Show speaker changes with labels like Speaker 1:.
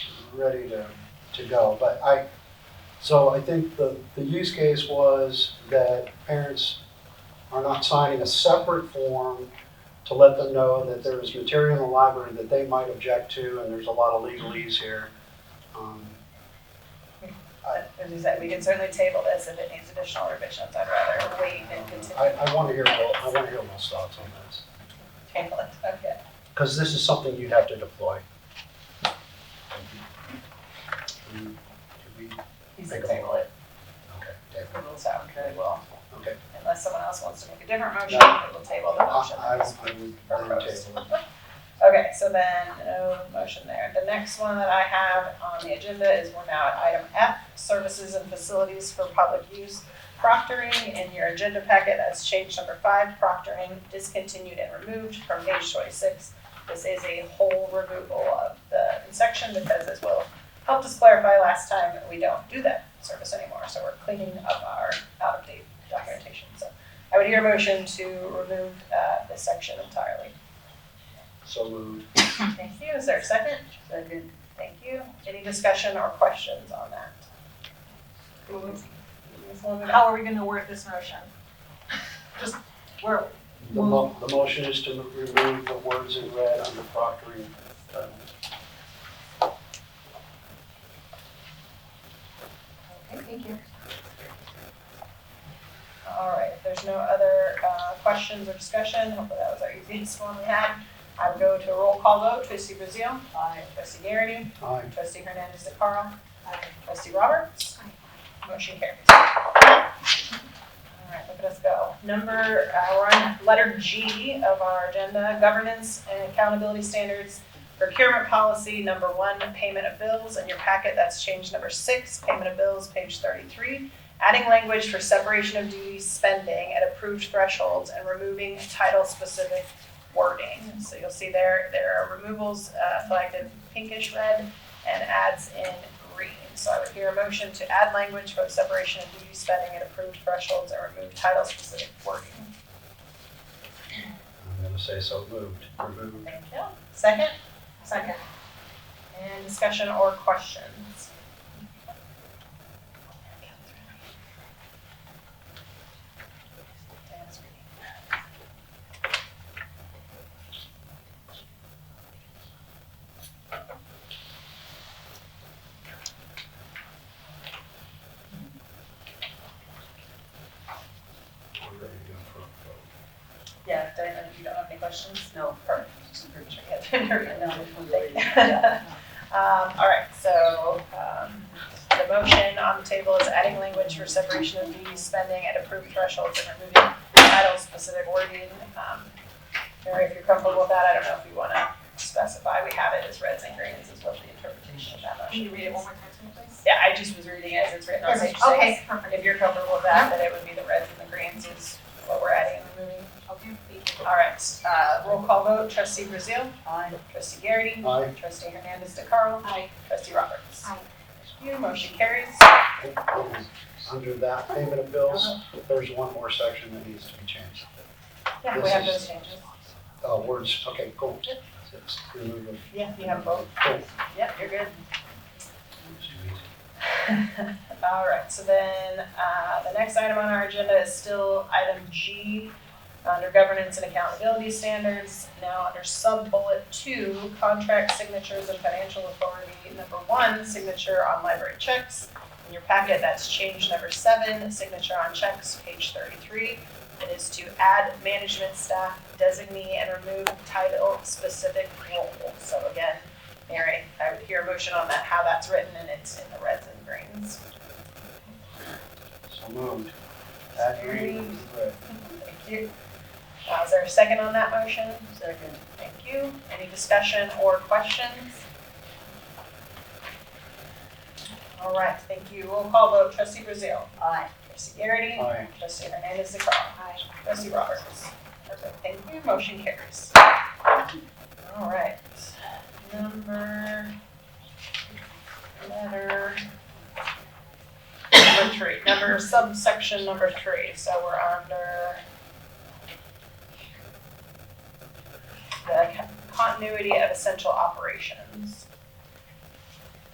Speaker 1: ready to, to go. But I, so I think the, the use case was that parents are not signing a separate form to let them know that there is material in the library that they might object to, and there's a lot of legalese here. Um,
Speaker 2: But as you said, we can certainly table this if it needs additional revisions. I'd rather wait and
Speaker 1: I,
Speaker 2: continue
Speaker 1: I want to hear, Will- I want to hear Will's thoughts on this,
Speaker 2: to table it. Okay.
Speaker 1: because this is something you'd have to deploy. Do we-
Speaker 2: He's
Speaker 1: Make a
Speaker 2: table it.
Speaker 1: Okay, David.
Speaker 2: We'll sound good. Well,
Speaker 1: Okay.
Speaker 2: unless someone else wants to make a different motion,
Speaker 1: No.
Speaker 2: we will table the
Speaker 1: I-
Speaker 2: motion.
Speaker 1: I, I would then table it.
Speaker 2: Okay, so then, no motion there. The next one that I have on the agenda is we're now at item F, services and facilities for public use. Proctoring in your agenda packet, that's change number five, proctoring discontinued and removed from page twenty-six. This is a whole removal of the section because as Will helped us clarify last time, we don't do that service anymore, so we're cleaning up our out-of-date documentation. So I would hear a motion to remove, uh, this section entirely.
Speaker 1: So moved.
Speaker 2: Thank you, is there a second? Second. Thank you, any discussion or questions on that? How are we gonna word this motion? Just, we're,
Speaker 1: The mo- the motion is to remove the words in red under proctoring. uh,
Speaker 2: okay, thank you. All right, if there's no other, uh, questions or discussion, hopefully that was our easiest one we had. I would go to a roll call vote, trustee Brazil. Aye. Trustee Garrity.
Speaker 1: Aye.
Speaker 2: Trustee Hernandez de Caro. Trustee Roberts. Motion carries. All right, look at us go. Number, uh, we're on letter G of our agenda, governance and accountability standards. Procurement policy, number one, payment of bills. In your packet, that's change number six, payment of bills, page thirty-three. Adding language for separation of duties spending at approved thresholds and removing title-specific wording. So you'll see there, there are removals uh, selected pinkish red and adds in green. So I would hear a motion to add language for the separation of duty spending at approved thresholds and remove title-specific wording.
Speaker 1: I'm gonna say so moved, removed.
Speaker 2: Thank you. Second?
Speaker 3: Second.
Speaker 2: And discussion or questions?
Speaker 1: We're ready to go for a
Speaker 2: Yeah, Diana, you don't have any questions?
Speaker 3: No.
Speaker 2: Perfect. Just pretty sure you have everything.
Speaker 3: No,
Speaker 2: Thank you. Um, all right, so, um, the motion on the table is adding language for separation of duties spending at approved thresholds and removing title-specific wording. Um, Mary, if you're comfortable with that, I don't know if you wanna specify, we have it as reds and greens is what the interpretation of that motion
Speaker 3: Can you read it
Speaker 2: is.
Speaker 3: one more time to me, please?
Speaker 2: Yeah, I just was reading it as it's written on page six.
Speaker 3: Okay, perfect.
Speaker 2: If you're comfortable with that, then it would be the reds and the greens is what we're adding and removing.
Speaker 3: Okay.
Speaker 2: All right, uh, roll call vote, trustee Brazil,
Speaker 3: Aye.
Speaker 2: trustee Garrity,
Speaker 1: vote.
Speaker 2: trustee Hernandez de Caro,
Speaker 3: Aye.
Speaker 2: trustee Roberts.
Speaker 3: Aye.
Speaker 2: Thank you, motion carries.
Speaker 1: Aye. Under that payment of bills, there's one more section that needs to be changed.
Speaker 2: Yeah, we
Speaker 1: This
Speaker 2: have
Speaker 1: is-
Speaker 2: those changes.
Speaker 1: Uh, words, okay, cool. It's remove them.
Speaker 2: Yeah, you have both.
Speaker 1: Cool.
Speaker 2: Yep, you're good.
Speaker 1: It's too easy.
Speaker 2: All right, so then, uh, the next item on our agenda is still item G, under governance and accountability standards. Now, under sub-bullet two, contract signatures and financial authority, number one, signature on library checks. In your packet, that's change number seven, signature on checks, page thirty-three. It is to add management staff designee and remove title-specific role. So again, Mary, I would hear a motion on that, how that's written, and it's in the reds and greens.
Speaker 1: So moved. Add green and red.
Speaker 2: Thank you. Uh, is there a second on that motion?
Speaker 3: Second.
Speaker 2: Thank you. Any discussion or questions? All right, thank you. Roll call vote, trustee Brazil.
Speaker 3: Aye.
Speaker 2: Trustee Garrity.
Speaker 1: Aye.
Speaker 2: Trustee Hernandez de Caro.
Speaker 3: Aye.
Speaker 2: Trustee Roberts. Perfect, thank you, motion carries. All right, number, letter, number three, number subsection number three, so we're under the continuity of essential operations.